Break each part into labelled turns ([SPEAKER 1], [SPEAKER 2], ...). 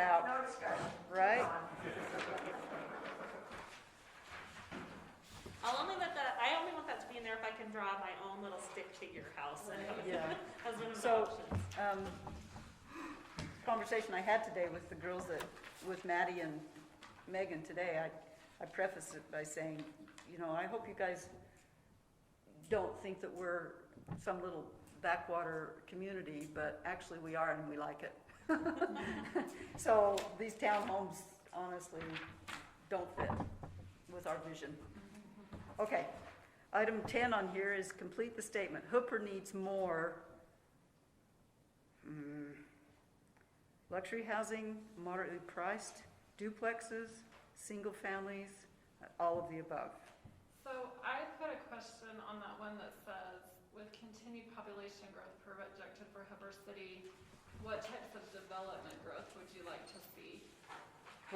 [SPEAKER 1] out,
[SPEAKER 2] No discussion.
[SPEAKER 1] right?
[SPEAKER 3] I'll only let that, I only want that to be in there if I can draw my own little stick figure house and have it
[SPEAKER 1] Yeah.
[SPEAKER 3] as one of the
[SPEAKER 1] So-
[SPEAKER 3] options.
[SPEAKER 1] Um, conversation I had today with the girls that, with Maddie and Megan today, I, I prefaced it by saying, you know, I hope you guys don't think that we're some little backwater community, but actually we are and we like it. So these townhomes honestly don't fit with our vision. Okay, item ten on here is complete the statement, Hooper needs more Hmm. Luxury housing, moderately priced, duplexes, single families, all of the above.
[SPEAKER 4] So I put a question on that one that says, with continued population growth projected for Heber City, what types of development growth would you like to see?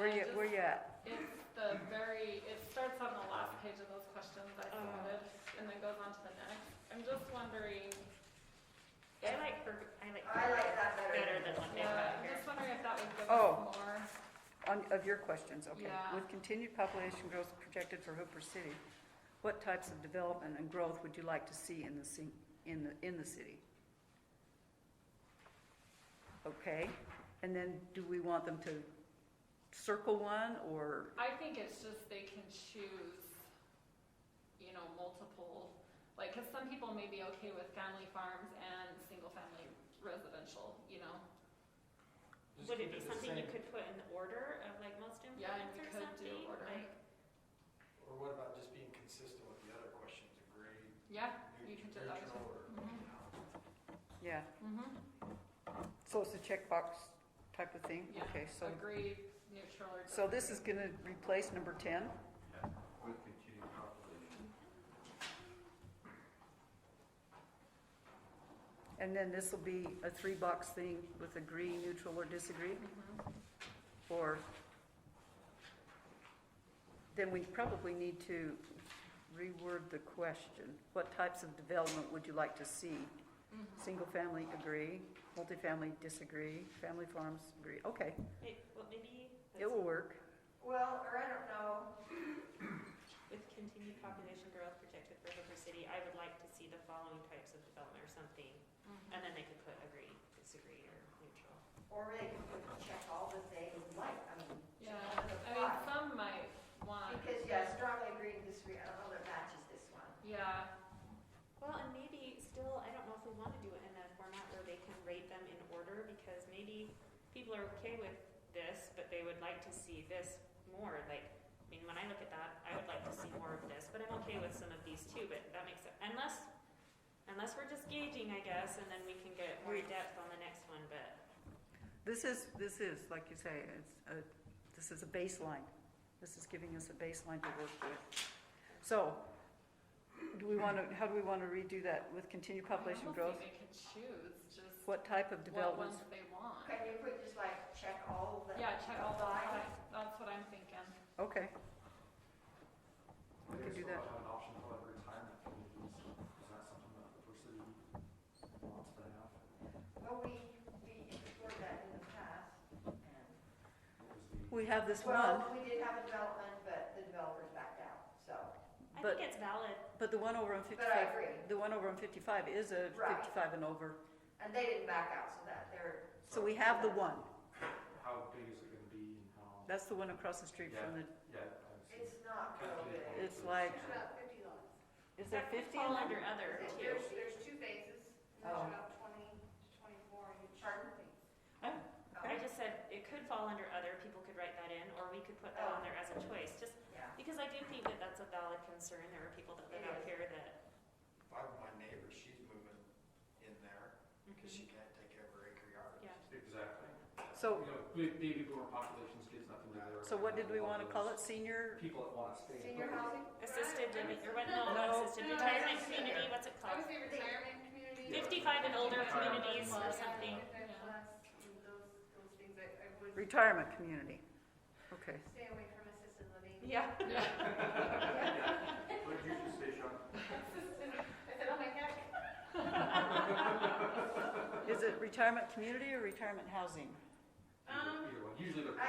[SPEAKER 1] Where you, where you at?
[SPEAKER 4] It's the very, it starts on the last page of those questions I submitted, and then goes on to the next. I'm just wondering,
[SPEAKER 3] I like her, I like
[SPEAKER 2] I
[SPEAKER 3] her
[SPEAKER 2] like that better.
[SPEAKER 3] better than what they have
[SPEAKER 4] yeah, uh, I'm
[SPEAKER 3] here.
[SPEAKER 4] just wondering if that would give us
[SPEAKER 1] Oh.
[SPEAKER 4] more.
[SPEAKER 1] On, of your questions, okay.
[SPEAKER 4] Yeah.
[SPEAKER 1] With continued population growth projected for Hooper City, what types of development and growth would you like to see in the, ci- in the, in the city? Okay, and then do we want them to circle one or,
[SPEAKER 4] I think it's just they can choose, you know, multiple, like, cause some people may be okay with family farms and single-family residential, you know?
[SPEAKER 5] Just
[SPEAKER 3] Would it
[SPEAKER 5] keep
[SPEAKER 3] be
[SPEAKER 5] the
[SPEAKER 3] something you
[SPEAKER 5] same.
[SPEAKER 3] could put in the order of like most
[SPEAKER 4] Yeah,
[SPEAKER 3] improvements or
[SPEAKER 4] you could do
[SPEAKER 3] something?
[SPEAKER 4] order.
[SPEAKER 3] Like,
[SPEAKER 5] Or what about just being consistent with the other questions, agree,
[SPEAKER 4] Yeah, you can do
[SPEAKER 5] neutral,
[SPEAKER 4] that
[SPEAKER 5] neutral, or,
[SPEAKER 1] Mm-hmm.
[SPEAKER 4] Mhm.
[SPEAKER 5] you know?
[SPEAKER 1] yeah,
[SPEAKER 4] mm-hmm,
[SPEAKER 1] so it's a checkbox type of thing?
[SPEAKER 4] Yeah,
[SPEAKER 1] Okay, so
[SPEAKER 4] agree, neutral or.
[SPEAKER 1] So this is
[SPEAKER 4] disagree.
[SPEAKER 1] gonna replace number ten?
[SPEAKER 6] With continued population.
[SPEAKER 1] And then this will be a three-box thing with agree, neutral, or disagree,
[SPEAKER 4] Mhm.
[SPEAKER 1] or then we probably need to reword the question. What types of development would you like to see?
[SPEAKER 4] Mhm.
[SPEAKER 1] Single-family, agree, multifamily, disagree, family farms, agree, okay,
[SPEAKER 3] may- Well, maybe
[SPEAKER 1] it will work.
[SPEAKER 2] Well, or I don't know,
[SPEAKER 3] with continued population growth projected for Hooper City, I would like to see the following types of development or something.
[SPEAKER 4] Mhm.
[SPEAKER 3] And then they could put agree, disagree, or neutral.
[SPEAKER 2] or they can check all that they like, I mean. check
[SPEAKER 4] Yeah,
[SPEAKER 2] all that
[SPEAKER 4] I mean,
[SPEAKER 2] apply.
[SPEAKER 4] some might want.
[SPEAKER 2] Because, yeah, strongly agree to disagree, I don't know that matches this one.
[SPEAKER 4] Yeah,
[SPEAKER 3] Well, and maybe still, I don't know if we want to do it in a format where they can rate them in order, because maybe people are okay with this, but they would like to see this more, like, I mean, when I look at that, I would like to see more of this, but I'm okay with some of these too, but that makes, it- unless, unless we're just gauging, I guess, and then we can get more
[SPEAKER 1] We-
[SPEAKER 3] depth on the next one, but,
[SPEAKER 1] This is, this is, like you say, it's a, this is a baseline. This is giving us a baseline to work with. So, do we wanna, how do we wanna redo that with continued
[SPEAKER 4] I mean,
[SPEAKER 1] population
[SPEAKER 4] almost
[SPEAKER 1] growth?
[SPEAKER 4] think they can choose just what
[SPEAKER 1] What type of developments?
[SPEAKER 4] ones they want.
[SPEAKER 2] Can you put just like, check all that?
[SPEAKER 4] Yeah, check all the,
[SPEAKER 2] apply?
[SPEAKER 4] that's what I'm thinking.
[SPEAKER 1] Okay,
[SPEAKER 5] They
[SPEAKER 1] could do
[SPEAKER 5] still
[SPEAKER 1] that.
[SPEAKER 5] have an option for like retirement communities, is that something that the person wants to have?
[SPEAKER 2] Well, we, we explored that in the past, and.
[SPEAKER 5] What was the?
[SPEAKER 1] we have this one,
[SPEAKER 2] Well, we did have a development, but the developers backed out, so.
[SPEAKER 3] I
[SPEAKER 1] But-
[SPEAKER 3] think it's valid.
[SPEAKER 1] but the one over on
[SPEAKER 2] But I
[SPEAKER 1] fifty-five,
[SPEAKER 2] agree,
[SPEAKER 1] the one over on fifty-five is a
[SPEAKER 2] Right.
[SPEAKER 1] fifty-five and over.
[SPEAKER 2] and they didn't back out, so that they're,
[SPEAKER 1] So we have the one,
[SPEAKER 5] How big is it gonna be and how,
[SPEAKER 1] that's the one across the street from the,
[SPEAKER 5] yeah, obviously.
[SPEAKER 2] it's not real big.
[SPEAKER 1] it's like,
[SPEAKER 7] There's about fifty lots.
[SPEAKER 1] is there
[SPEAKER 3] That could
[SPEAKER 1] fifty? in
[SPEAKER 3] Fall
[SPEAKER 1] there?
[SPEAKER 3] under other too.
[SPEAKER 7] There's, there's two phases, and
[SPEAKER 1] Oh.
[SPEAKER 7] there's about twenty to twenty-four in each
[SPEAKER 2] Pardon?
[SPEAKER 7] phase.
[SPEAKER 4] Oh,
[SPEAKER 2] Oh,
[SPEAKER 3] I just said it could fall under other, people could write that in, or we could put
[SPEAKER 1] Oh.
[SPEAKER 3] that on there as a choice, just
[SPEAKER 2] Yeah,
[SPEAKER 3] Because I do think that that's a valid concern. There are people that live out here that.
[SPEAKER 5] If I were my neighbor, she's moving in there,
[SPEAKER 7] Mm-hmm.
[SPEAKER 5] cause she can't take care of her acre yard.
[SPEAKER 3] Yeah.
[SPEAKER 5] Exactly.
[SPEAKER 1] So-
[SPEAKER 5] You know, ba- baby boomer populations gives nothing to their.
[SPEAKER 1] Oh. So what did we
[SPEAKER 5] all
[SPEAKER 1] wanna
[SPEAKER 5] those
[SPEAKER 1] call it, senior?
[SPEAKER 5] People that wanna stay.
[SPEAKER 2] senior housing?
[SPEAKER 3] Assisted living, or what,
[SPEAKER 1] No.
[SPEAKER 3] no, not assisted,
[SPEAKER 7] No, that's-
[SPEAKER 3] retirement community, what's it
[SPEAKER 7] I
[SPEAKER 3] called?
[SPEAKER 7] would say retirement community.
[SPEAKER 3] Fifty-five and older communities or
[SPEAKER 7] Yeah,
[SPEAKER 3] something.
[SPEAKER 7] infant
[SPEAKER 4] Yeah.
[SPEAKER 7] plus, and those, those things, I, I would
[SPEAKER 1] Retirement community, okay.
[SPEAKER 7] stay away from assisted living.
[SPEAKER 3] Yeah.
[SPEAKER 6] What did you just say, Sean?
[SPEAKER 7] I said, oh my heck.
[SPEAKER 1] Is it retirement community or retirement housing?
[SPEAKER 5] Either- either one. Usually